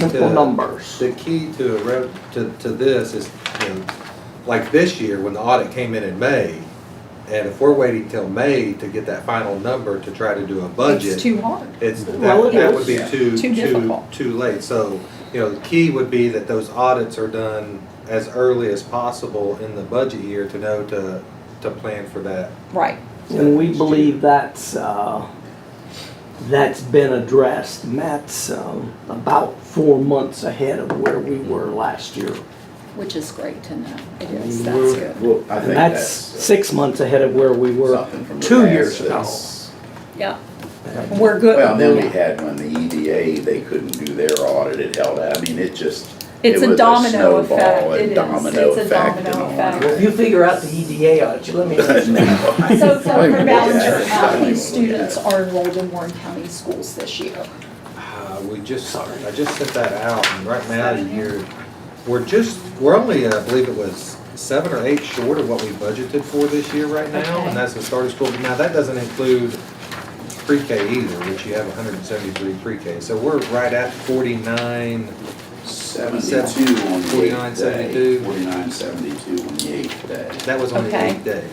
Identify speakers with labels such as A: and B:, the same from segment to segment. A: Simple
B: to-
A: numbers.
B: The key to a rev, to, to this is, you know, like this year, when the audit came in in May, and if we're waiting till May to get that final number to try to do a budget.
C: It's too hard.
B: It's,
C: Well,
B: that,
C: it
B: that
C: is.
B: would be too, too,
C: Too difficult.
B: too late. So, you know, the key would be that those audits are done as early as possible in the budget year to know to, to plan for that.
C: Right.
D: And we believe that's, uh, that's been addressed. Matt's um, about four months ahead of where we were last year.
C: Which is great to know. It
D: I
C: is,
D: mean,
C: that's
D: we're-
C: good.
E: Well, I
D: And
E: think
D: that's
E: that's uh,
D: six months ahead of where we were
E: something from the
D: two
E: past
D: years ago.
E: that's-
C: Yeah. We're good.
E: Well, then we had when the EDA, they couldn't do their audit, it held out, I mean, it just. it
C: It's a
E: was
C: domino
E: snowball
C: effect.
E: and
C: It is.
E: domino
C: It's a
E: effect
C: domino
E: and all
C: effect.
E: that.
D: If you figure out the EDA audit, you let me know.
E: No.
C: So, so
E: Wait a
C: for
E: minute,
C: Ballinger
E: yeah.
C: County, students are enrolled in Warren County schools this year.
B: Uh, we just, I just sent that out, and right now, you're, we're just, we're only, uh, I believe it was seven or eight short of what we budgeted for this year right now,
C: Okay.
B: and that's the start of school. Now, that doesn't include pre-K either, which you have hundred and seventy-three pre-K, so we're right at forty-nine,
E: Seventy-two on the
B: Forty-nine,
E: eighth day,
B: seventy-two.
E: forty-nine, seventy-two on the eighth day.
B: that was only
C: Okay.
B: eight day.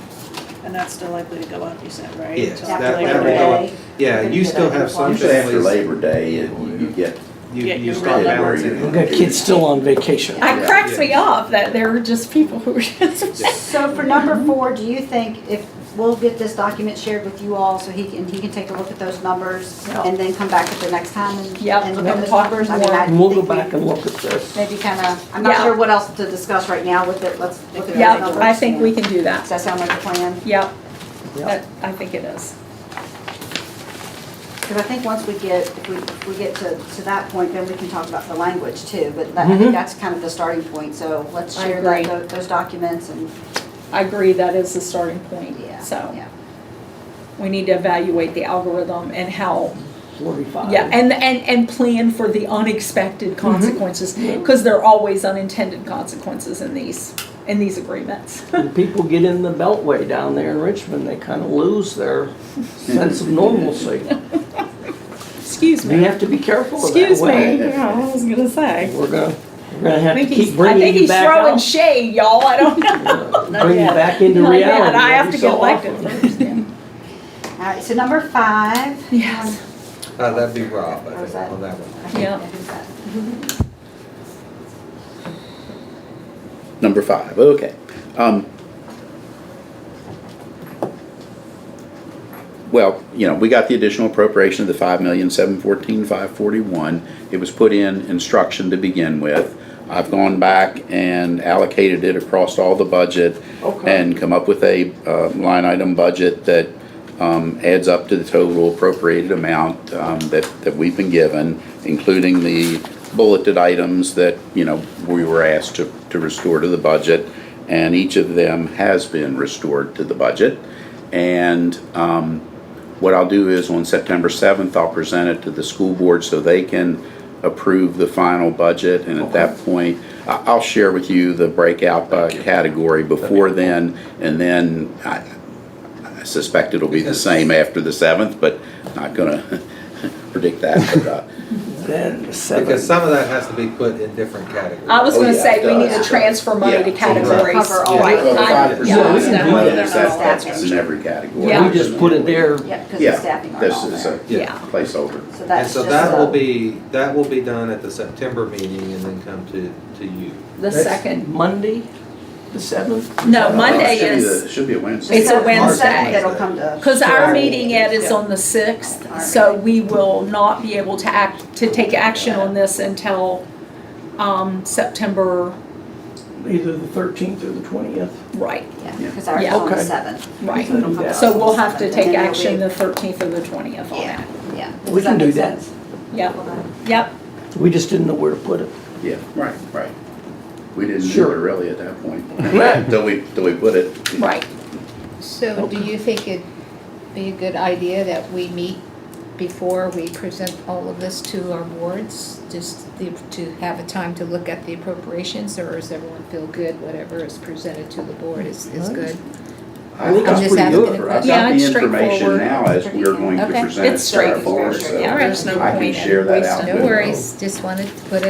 F: And that's still likely to go up, you said, right?
B: Yes,
F: Till
B: that-
F: after
B: that
F: Labor
B: will go up.
F: Day.
B: Yeah, and you still have some
E: Usually after
B: families,
E: Labor Day, it- you you get.
B: you,
F: Yeah,
B: you
F: you're
B: start
F: right.
B: balancing.
D: We've got kids still on vacation.
C: It cracks me up that there are just people who are just.
G: So for number four, do you think if, we'll get this document shared with you all so he can, he can take a look at those numbers
C: Yeah.
G: and then come back at the next time and,
C: Yep,
G: and look
C: and
G: at the
C: talk
G: numbers? I
C: more.
G: mean, I
D: And we'll go
G: think we
D: back and look at this.
G: Maybe kind of, I'm
C: Yeah.
G: not sure what else to discuss right now with it, let's look at those
C: Yeah,
G: numbers.
C: I think we
G: and-
C: can do
G: Does
C: that.
G: that sound like a plan?
C: Yeah,
D: Yeah.
C: that, I think it is.
G: Because I think once we get, if we, if we get to, to that point, then we can talk about the language too, but that, I think
D: Mhm.
G: that's kind of the starting point, so let's
C: I
G: share
C: agree.
G: that- tho- those documents and,
C: I agree, that is the starting point.
G: yeah,
C: So
G: yeah.
C: we need to evaluate the algorithm and how
D: Forty-five.
C: Yeah, and, and, and plan for the
D: Mm-hmm.
C: unexpected consequences, because there are always unintended consequences in these, in these agreements.
D: When people get in the beltway down there in Richmond, they kind of lose their sense of normalcy.
C: Excuse
D: We
C: me.
D: have to be careful of that
C: Excuse me.
D: way.
C: Yeah, I was gonna say.
D: We're gonna, we're gonna
C: I
D: have to
C: think
D: keep
C: he's, I think
D: bringing you
C: he's
D: back
C: throwing
D: out.
C: shade, y'all. I don't know.
D: uh, Bring you
C: yet.
D: back into
C: Not
D: reality.
C: yet. I have
D: every
C: to get
D: so
C: elected
D: often.
C: first. yeah.
G: All right, so number five.
C: Yes.
B: Uh, that'd be Rob,
G: Or
B: I
G: was
B: think,
G: that-
B: on that one.
G: I think-
C: Yeah.
G: I think that-
E: Number five, okay. Um, Well, you know, we got the additional appropriation of the five million, seven fourteen, five forty-one. It was put in instruction to begin with. I've gone back and allocated it across all the budget
D: Okay.
E: and come up with a uh, line item budget that um, adds up to the total appropriated amount um, that, that we've been given, including the bulleted items that, you know, we were asked to, to restore to the budget. And each of them has been restored to the budget. And um, what I'll do is on September 7th, I'll present it to the school board so they can approve the final budget. And at that point, I- I'll share with you the breakout by category before then. And then I I suspect it'll be the same after the 7th, but not going to predict that. But, uh,
D: Then seven.
B: Because some of that has to be put in different categories.
C: I was
E: Oh,
C: gonna
E: yeah,
C: say,
E: it
C: we need
E: does.
C: to transfer money to
E: Yeah.
C: categories.
G: Cover all
C: Right.
G: of
E: well,
G: them.
E: the
C: I-
E: five percent
C: yeah,
D: we
E: is
D: can
E: not
D: do
E: one of
D: that.
E: those. That's that's in every category.
C: Yeah.
D: We just put it there.
G: Yeah, because the
E: Yeah,
G: staffing aren't
E: this
G: all
E: is
G: there.
E: a
C: Yeah.
E: placeholder.
G: So
B: And
G: that's
B: so
G: just
B: that will
G: a,
B: be, that will be done at the September meeting and then come to, to you.
C: The
D: That's
C: second,
D: Monday, the seventh?
C: no,
E: Uh,
C: Monday
E: it should be the-
C: is,
E: It should be a Wednesday.
C: It's a
G: Except for the second
B: Wednesday.
G: That'll come to.
C: because our
G: Sure.
C: meeting, Ed, is on the sixth, so we will not be able to act, to take action on this until, um, September,
D: Either the thirteenth or the twentieth.
C: right,
G: Yeah, because ours is
C: Yeah.
G: on the
D: Okay.
G: seventh.
C: right.
D: That'll be
C: So we'll have to
G: And then
C: take
G: there'll
C: action
G: be-
C: the thirteenth or the twentieth on
G: Yeah,
C: that.
G: yeah.
D: We
G: Does
D: can do
G: make
D: that.
G: sense?
C: Yep, yep,
D: We just didn't know where to put it.
E: Yeah, right, right. We didn't do
D: Sure.
E: it really at that point, until we, till we put it.
C: right.
H: So do you think it'd be a good idea that we meet before we present all of this to our boards? Just the- to have a time to look at the appropriations, or does everyone feel good, whatever is presented to the board is, is good?
E: I
D: think
E: I'm
D: that's
E: just
D: pretty
E: asking
D: good.
E: for- I've
C: Yeah,
E: got the
C: it's
E: information
C: straightforward.
E: now as we're going to
H: Okay.
E: present it
C: It's
E: to our
C: straightforward.
E: board, so
C: Yeah, there's no
E: I can
C: point in
E: share that
C: wasting
E: out.
H: No
E: with-
H: worries, just wanted to put